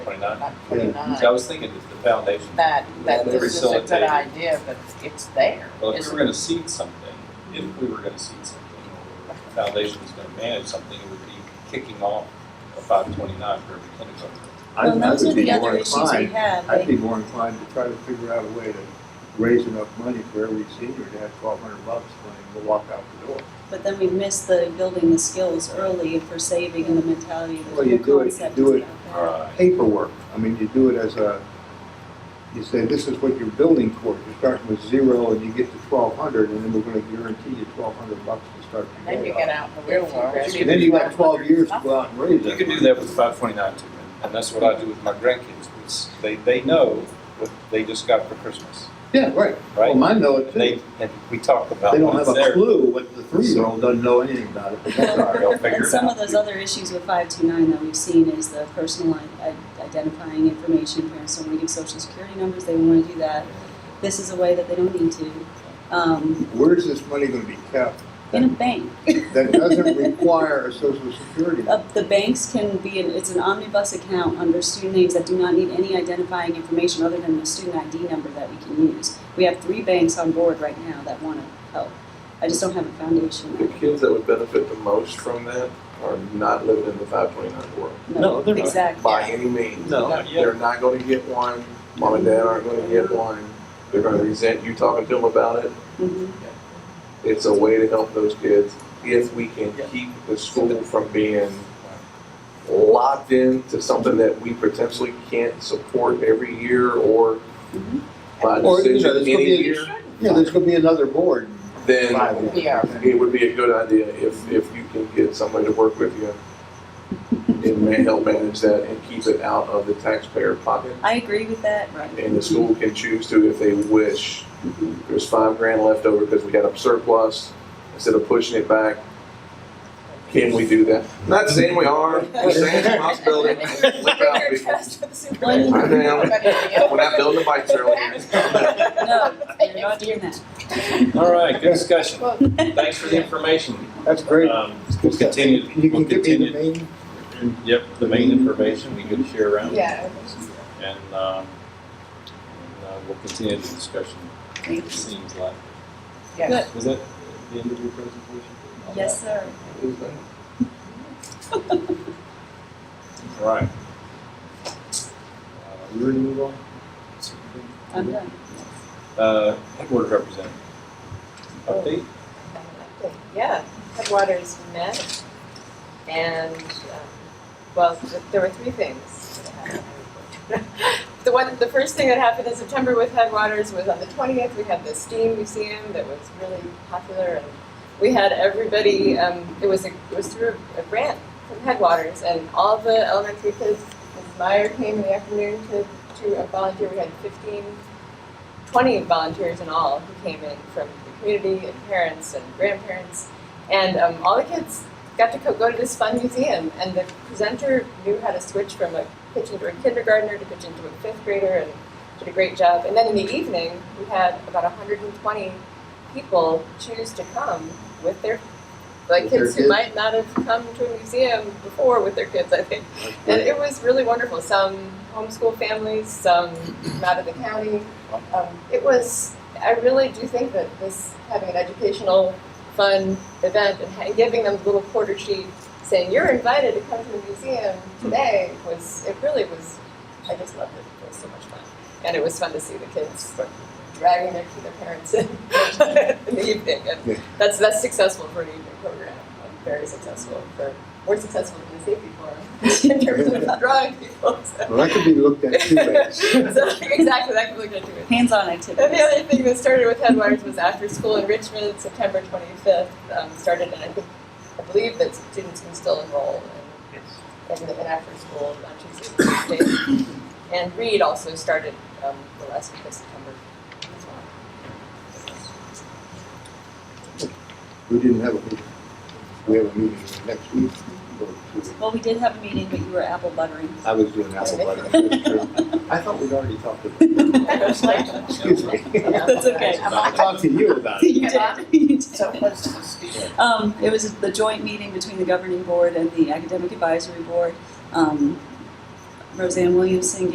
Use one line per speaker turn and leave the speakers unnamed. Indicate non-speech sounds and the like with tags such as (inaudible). Twenty-nine?
like twenty-nine,
See, I was thinking if the foundation,
that, that
They
this is a good
facilitate.
idea, but it's there.
well, if we
It's-
were gonna seed something, if we were gonna seed something, or the foundation was gonna manage something, it would be kicking off a five twenty-nine for every kindergarten.
I
Well,
I
those are
would be
the
more
other issues we
inclined,
had.
I'd
They-
be more inclined to try to figure out a way to raise enough money for every senior to have twelve hundred bucks when they walk out the door.
But then we missed the building the skills early for saving and the mentality that
Well, you
the
do it- you
concept
do
is
it-
out there.
Alright.
Paperwork, I mean, you do it as a, you say, this is what you're building for, you're starting with zero and you get to twelve hundred, and then we're gonna guarantee you twelve hundred bucks to start
And
your
Then you
day
get
off.
out in the real world.
You
see
can-
Then
the
you have twelve years to
1200.
go out and raise
You
that.
could do that with five twenty-nine too, and that's what I do with my grandkids, it's, they, they know what they just got for Christmas,
Yeah, right, well,
right?
mine know it
And
too,
they,
they
and we talk about
don't
what's
have a
there.
clue what the three-year-old doesn't know anything about it, but that's
(laughs)
all right.
(laughs)
Sorry, I'll figure
And
it
some
out.
of those other issues with five two nine that we've seen is the personal i- identifying information, parents don't want to give social security numbers, they want to do that. This is a way that they don't need to, um,
Where's this money gonna be kept
in a bank.
that doesn't require a social security?
Uh, the banks can be, an, it's an omnibus account under student names that do not need any identifying information other than the student ID number that we can use. We have three banks on board right now that want to help. I just don't have a foundation.
The kids that would benefit the most from that are not living in the five twenty-nine world
No, they're not.
Exactly.
by any means.
No, not yet.
They're not gonna get one, mom and dad aren't gonna get one, they're gonna resent you talking to them about it.
Mhm.
It's a way to help those kids if we can keep the school from being locked into something that we potentially can't support every year or
Mhm.
by
Mm-hmm. Or, you know,
decision
there's gonna
any
be,
year,
yeah, there's gonna be another board in
then
five years.
Yeah.
it would be a good idea if, if you can get somebody to work with you and ma- help manage that and keep it out of the taxpayer pocket.
I agree with that, right.
And the school can choose to if they wish. There's five grand left over because we had a surplus, instead of pushing it back. Can we do that? Not saying we are, we're saying it's a
(laughs)
possibility. Look out, people.
Well,
I am. We're not
Everybody-
building a bike trail
(laughs)
here.
No, you're not doing that.
All right, good discussion,
Well,
thanks for the information.
That's great.
Um, We'll continue,
You
we'll
can give me
continue,
the name?
yep, the main information we can share around.
Yeah.
And, um, and, uh, we'll continue the discussion, it
Thanks.
seems like.
Yeah.
Was that the end of your presentation?
(laughs) Yes, sir.
All Right. Uh, You ready to move on?
I'm done.
Uh, headquarters representative.
Oh.
Update?
Yeah, Headwaters met, and, um, well, th- there were three things that happened. (laughs) The one, the first thing that happened in September with Headwaters was on the twentieth, we had the STEAM Museum that was really popular, and we had everybody, um, it was a, it was through a grant from Headwaters, and all the elementary kids, Ms. Meyer came in the afternoon to, to volunteer, we had fifteen 20 volunteers in all who came in from the community and parents and grandparents. And um, all the kids got to co- go to this fun museum, and the presenter knew how to switch from a pitch into a kindergartner to pitch into a fifth grader and did a great job. And then in the evening, we had about 120 people choose to come with their like
With their
kids who
kids.
might not have come to a museum before with their kids, I think. And it was really wonderful. Some homeschool families, some from out of the county. Um, it was, I really do think that this, having an educational, fun event and ha- giving them the little quarter sheet saying, you're invited to come to the museum today was, it really was, I just loved it. It was so much fun. And it was fun to see the kids dragging their, their parents in (laughs) in the evening.
Yeah.
And that's, that's successful for an evening program. Um, Very successful for, more successful than the safety forum (laughs) in terms of drawing people. So,
Well, that could be looked at two ways.
(laughs) so exactly, that can look into it.
Hands-on
(laughs) And the
activities.
other thing that started with Headwaters was after school enrichment, September 25th um, started, and I think I believe that students can still enroll in, in, the, in after school on Tuesdays and Thursdays. And Reed also started um, the last week of September as well.
We didn't have a meeting. We have a meeting next week. or two weeks.
Well, we did have a meeting, but you were apple buttering.
I was doing apple butter. I thought we'd already talked about it.
(laughs)
Excuse me.
That's (laughs) okay.
I talked to you
(laughs)
about it.
You did, you did.
So what's the student?
Um, it was the joint meeting between the governing board and the academic advisory board. Um, Roseanne Williamson